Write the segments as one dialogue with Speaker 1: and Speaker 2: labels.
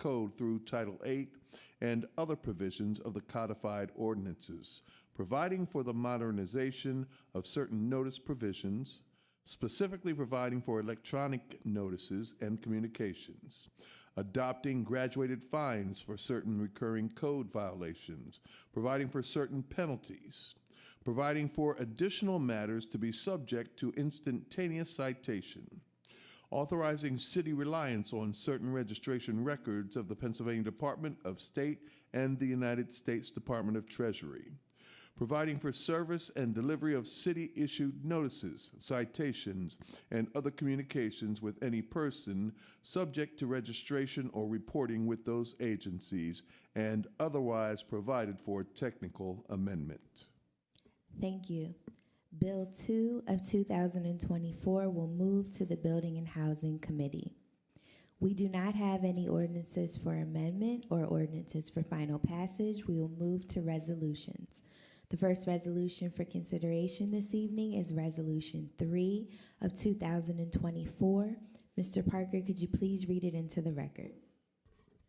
Speaker 1: Code through Title VIII and other provisions of the codified ordinances, providing for the modernization of certain notice provisions, specifically providing for electronic notices and communications, adopting graduated fines for certain recurring code violations, providing for certain penalties, providing for additional matters to be subject to instantaneous citation, authorizing city reliance on certain registration records of the Pennsylvania Department of State and the United States Department of Treasury, providing for service and delivery of city-issued notices, citations, and other communications with any person subject to registration or reporting with those agencies, and otherwise provided for technical amendment.
Speaker 2: Thank you. Bill 2 of 2024 will move to the Building and Housing Committee. We do not have any ordinances for amendment or ordinances for final passage. We will move to resolutions. The first resolution for consideration this evening is Resolution 3 of 2024. Mr. Parker, could you please read it into the record?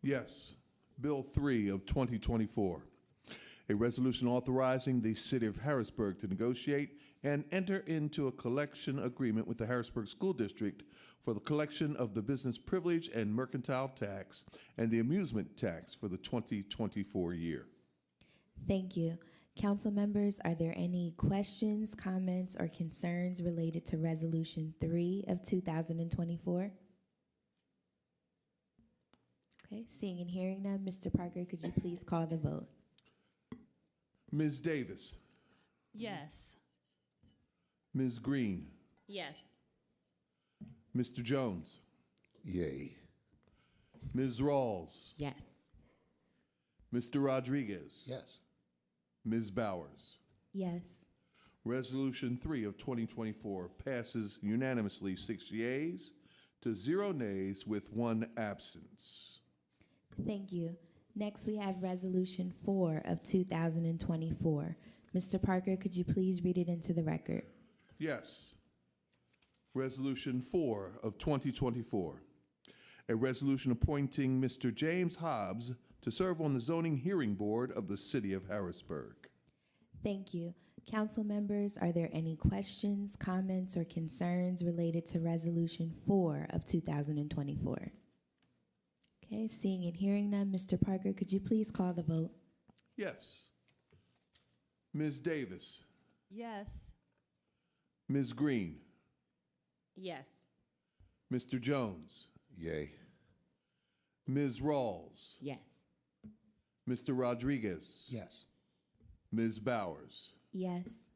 Speaker 1: Yes. Bill 3 of 2024, a resolution authorizing the City of Harrisburg to negotiate and enter into a collection agreement with the Harrisburg School District for the collection of the business privilege and mercantile tax and the amusement tax for the 2024 year.
Speaker 2: Thank you. Council members, are there any questions, comments, or concerns related to Resolution 3 of 2024? Okay, seeing and hearing none, Mr. Parker, could you please call the vote?
Speaker 1: Ms. Davis,
Speaker 3: Yes.
Speaker 1: Ms. Green,
Speaker 3: Yes.
Speaker 1: Mr. Jones,
Speaker 4: Yay.
Speaker 1: Ms. Rawls,
Speaker 3: Yes.
Speaker 1: Mr. Rodriguez,
Speaker 4: Yes.
Speaker 1: Ms. Bowers.
Speaker 2: Yes.
Speaker 1: Resolution 3 of 2024 passes unanimously, six yeas to zero nays with one absence.
Speaker 2: Thank you. Next, we have Resolution 4 of 2024. Mr. Parker, could you please read it into the record?
Speaker 1: Yes. Resolution 4 of 2024, a resolution appointing Mr. James Hobbs to serve on the Zoning Hearing Board of the City of Harrisburg.
Speaker 2: Thank you. Council members, are there any questions, comments, or concerns related to Resolution 4 of 2024? Okay, seeing and hearing none, Mr. Parker, could you please call the vote?
Speaker 1: Yes. Ms. Davis,
Speaker 3: Yes.
Speaker 1: Ms. Green,
Speaker 3: Yes.
Speaker 1: Mr. Jones,
Speaker 4: Yay.
Speaker 1: Ms. Rawls,
Speaker 3: Yes.
Speaker 1: Mr. Rodriguez.
Speaker 4: Yes.
Speaker 1: Ms. Bowers.
Speaker 2: Yes.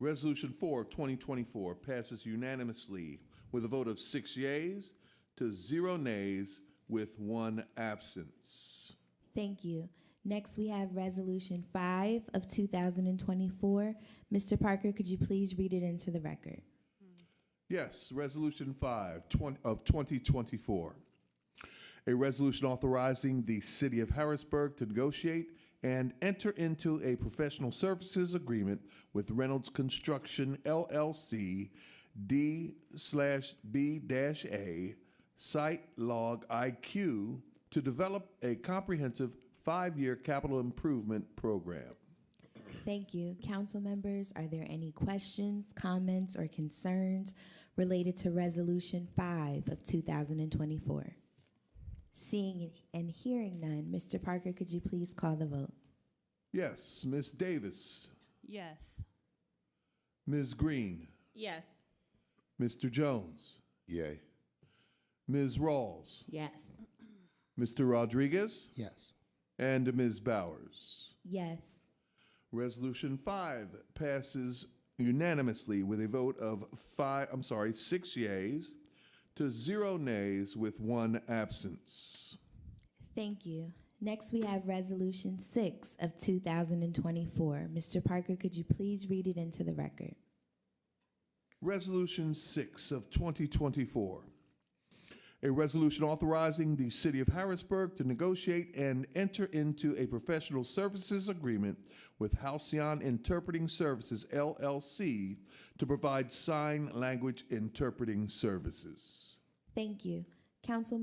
Speaker 1: Resolution 4 of 2024 passes unanimously with a vote of six yeas to zero nays with one absence.
Speaker 2: Thank you. Next, we have Resolution 5 of 2024. Mr. Parker, could you please read it into the record?
Speaker 1: Yes, Resolution 5 twen- of 2024. A resolution authorizing the City of Harrisburg to negotiate and enter into a professional services agreement with Reynolds Construction LLC D slash B dash A Site Log IQ to develop a comprehensive five-year capital improvement program.
Speaker 2: Thank you. Council members, are there any questions, comments, or concerns related to Resolution 5 of 2024? Seeing and hearing none, Mr. Parker, could you please call the vote?
Speaker 1: Yes, Ms. Davis,
Speaker 3: Yes.
Speaker 1: Ms. Green,
Speaker 3: Yes.
Speaker 1: Mr. Jones.
Speaker 4: Yay.
Speaker 1: Ms. Rawls,
Speaker 3: Yes.
Speaker 1: Mr. Rodriguez,
Speaker 4: Yes.
Speaker 1: and Ms. Bowers.
Speaker 2: Yes.
Speaker 1: Resolution five passes unanimously with a vote of five, I'm sorry, six yeas to zero nays with one absence.
Speaker 2: Thank you. Next, we have Resolution 6 of 2024. Mr. Parker, could you please read it into the record?
Speaker 1: Resolution 6 of 2024, a resolution authorizing the City of Harrisburg to negotiate and enter into a professional services agreement with Halcyon Interpreting Services LLC to provide sign language interpreting services.
Speaker 2: Thank you. Councilmember